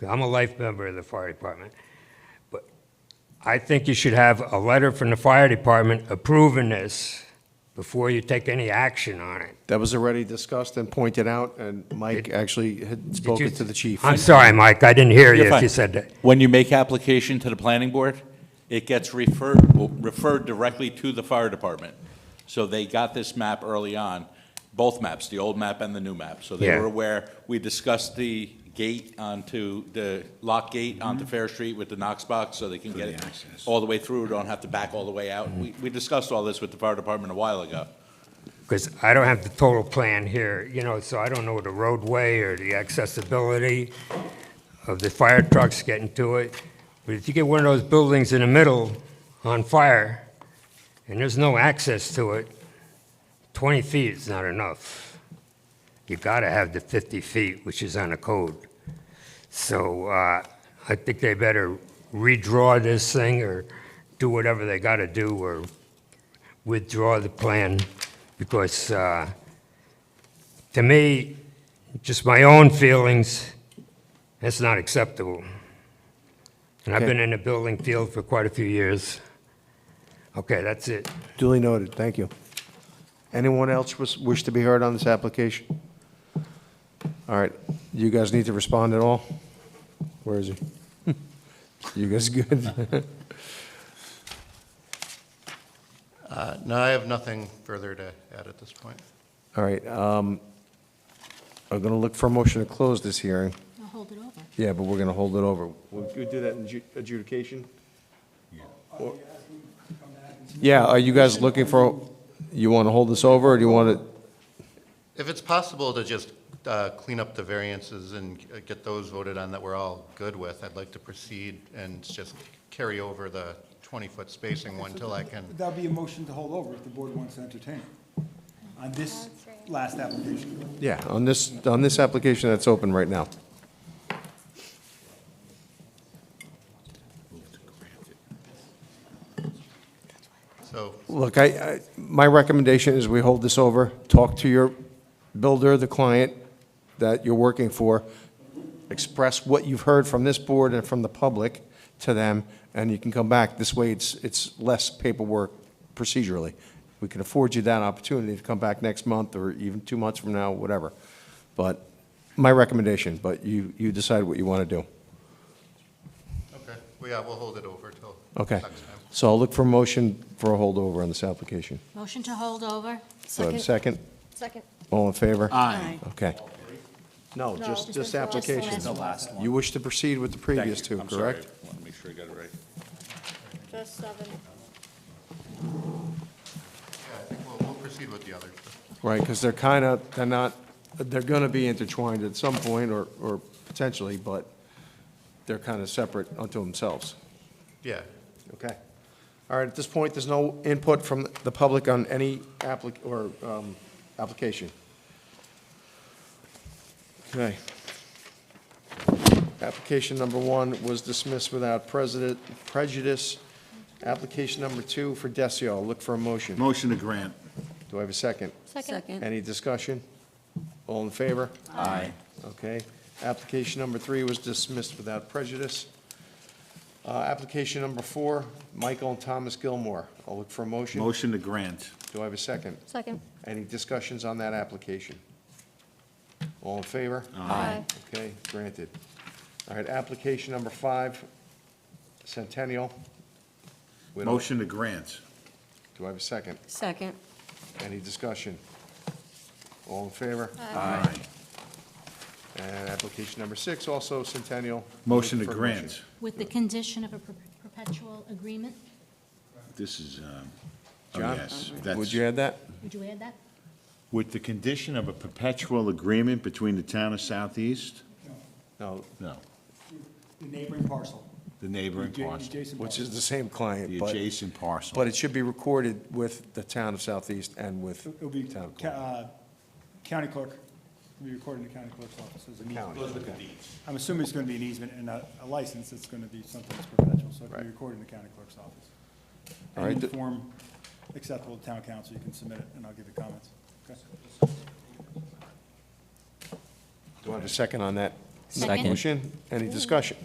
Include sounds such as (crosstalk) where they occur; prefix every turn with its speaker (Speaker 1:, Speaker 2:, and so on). Speaker 1: I'm a life member of the fire department. But I think you should have a letter from the fire department approving this before you take any action on it.
Speaker 2: That was already discussed and pointed out, and Mike actually had spoken to the chief.
Speaker 1: I'm sorry, Mike, I didn't hear
Speaker 3: You're
Speaker 1: you if
Speaker 3: fine.
Speaker 1: you said that.
Speaker 3: When you make application to the planning board, it gets referred, well, referred directly to the fire department. So they got this map early on, both maps, the old map and the new map. So they
Speaker 1: Yeah.
Speaker 3: were aware, we discussed the gate onto, the lock gate onto Fair Street with the Knox box, so they can get it all the way through, don't have to back all the way out. We, we discussed all this with the fire department a while ago.
Speaker 1: Because I don't have the total plan here, you know, so I don't know the roadway or the accessibility of the fire trucks getting to it. But if you get one of those buildings in the middle on fire, and there's no access to it, 20 feet is not enough. you got to have the 50 feet, which is on the code. So uh, I think they better redraw this thing or do whatever they got to do or withdraw the plan because, uh, to me, just my own feelings, that's not acceptable. And I've
Speaker 2: Okay.
Speaker 1: been in the building field for quite a few years. Okay, that's it.
Speaker 2: Duly noted, thank you. Anyone else wish- wish to be heard on this application? All right, you guys need to respond at all? Where is he? (laughs) You guys good? (laughs)
Speaker 4: Uh, No, I have nothing further to add at this point.
Speaker 2: All right, um, I'm going to look for a motion to close this hearing.
Speaker 5: I'll hold it over.
Speaker 2: Yeah, but we're going to hold it over. We'll do that in adjudication? Or- Yeah, are you guys looking for, you want to hold this over, or do you want to?
Speaker 4: If it's possible to just uh, clean up the variances and uh, get those voted on that we're all good with, I'd like to proceed and just carry over the 20-foot spacing one till I can,
Speaker 6: That'll be a motion to hold over if the board wants to entertain it on this last application.
Speaker 2: Yeah, on this, on this application that's open right now.
Speaker 4: so
Speaker 2: Look, I, I, my recommendation is we hold this over, talk to your builder, the client that you're working for, express what you've heard from this board and from the public to them, and you can come back. This way, it's, it's less paperwork procedurally. We can afford you that opportunity to come back next month or even two months from now, whatever. But, my recommendation, but you, you decide what you want to do.
Speaker 4: Okay, well, yeah, we'll hold it over till
Speaker 2: Okay?
Speaker 4: next time.
Speaker 2: So I'll look for a motion for a holdover on this application.
Speaker 5: Motion to hold over?
Speaker 2: So I have a second?
Speaker 7: Second.
Speaker 2: All in favor?
Speaker 5: Aye.
Speaker 2: Okay. No,
Speaker 7: No, just
Speaker 2: just this
Speaker 7: the last one.
Speaker 2: application.
Speaker 7: Just the
Speaker 2: last one. You wish to proceed with the previous two,
Speaker 3: I'm sorry.
Speaker 2: correct?
Speaker 3: Want to make sure I got it right.
Speaker 7: Just seven.
Speaker 4: Yeah, I think we'll, we'll proceed with the others.
Speaker 2: Right, because they're kind of, they're not, they're going to be intertwined at some point or, or potentially, but they're kind of separate unto themselves.
Speaker 4: Yeah,
Speaker 2: Okay. All right, at this point, there's no input from the public on any applic, or, um, application. Okay. Application number one was dismissed without president, prejudice. Application number two for Decio, I'll look for a motion.
Speaker 8: Motion to grant.
Speaker 2: Do I have a second?
Speaker 5: Second.
Speaker 2: Any discussion? All in favor?
Speaker 8: Aye.
Speaker 2: Okay. Application number three was dismissed without prejudice. Uh, Application number four, Michael and Thomas Gilmore. I'll look for a motion.
Speaker 8: Motion to grant.
Speaker 2: Do I have a second?
Speaker 7: Second.
Speaker 2: Any discussions on that application? All in favor?
Speaker 7: Aye.
Speaker 2: Okay, granted. All right, application number five, Centennial. Widow.
Speaker 8: Motion to grant.
Speaker 2: Do I have a second?
Speaker 5: Second.
Speaker 2: Any discussion? All in favor?
Speaker 8: Aye.
Speaker 2: And application number six, also Centennial.
Speaker 8: Motion to
Speaker 2: Looking for a
Speaker 8: grant.
Speaker 5: With the condition of a per- perpetual agreement?
Speaker 8: This is, um, oh,
Speaker 2: John?
Speaker 8: yes,
Speaker 2: motion. Would
Speaker 8: that's,
Speaker 2: you add that?
Speaker 5: Would you add that?
Speaker 8: with the condition of a perpetual agreement between the town of Southeast,
Speaker 2: No,
Speaker 8: no,
Speaker 6: The neighboring parcel.
Speaker 8: the neighboring
Speaker 6: Adja-
Speaker 8: parcel,
Speaker 6: adjacent
Speaker 2: which
Speaker 6: parcel.
Speaker 2: is the same client,
Speaker 8: the
Speaker 2: but,
Speaker 8: adjacent parcel.
Speaker 2: but it should be recorded with the town of Southeast and with
Speaker 6: It'll be
Speaker 2: town
Speaker 6: ca-
Speaker 2: clerk.
Speaker 6: uh, county clerk, it'll be recorded in the county clerk's office as an easement.
Speaker 2: County.
Speaker 6: I'm assuming it's going to be an easement and a a license, it's going to be something that's perpetual, so it can
Speaker 2: Right.
Speaker 6: be recorded in the county clerk's office.
Speaker 2: All
Speaker 6: And
Speaker 2: right,
Speaker 6: in
Speaker 2: th-
Speaker 6: form acceptable to town council, you can submit it, and I'll give you comments. Okay.
Speaker 2: Do I have a second on that?
Speaker 5: Second.
Speaker 2: Motion, any discussion?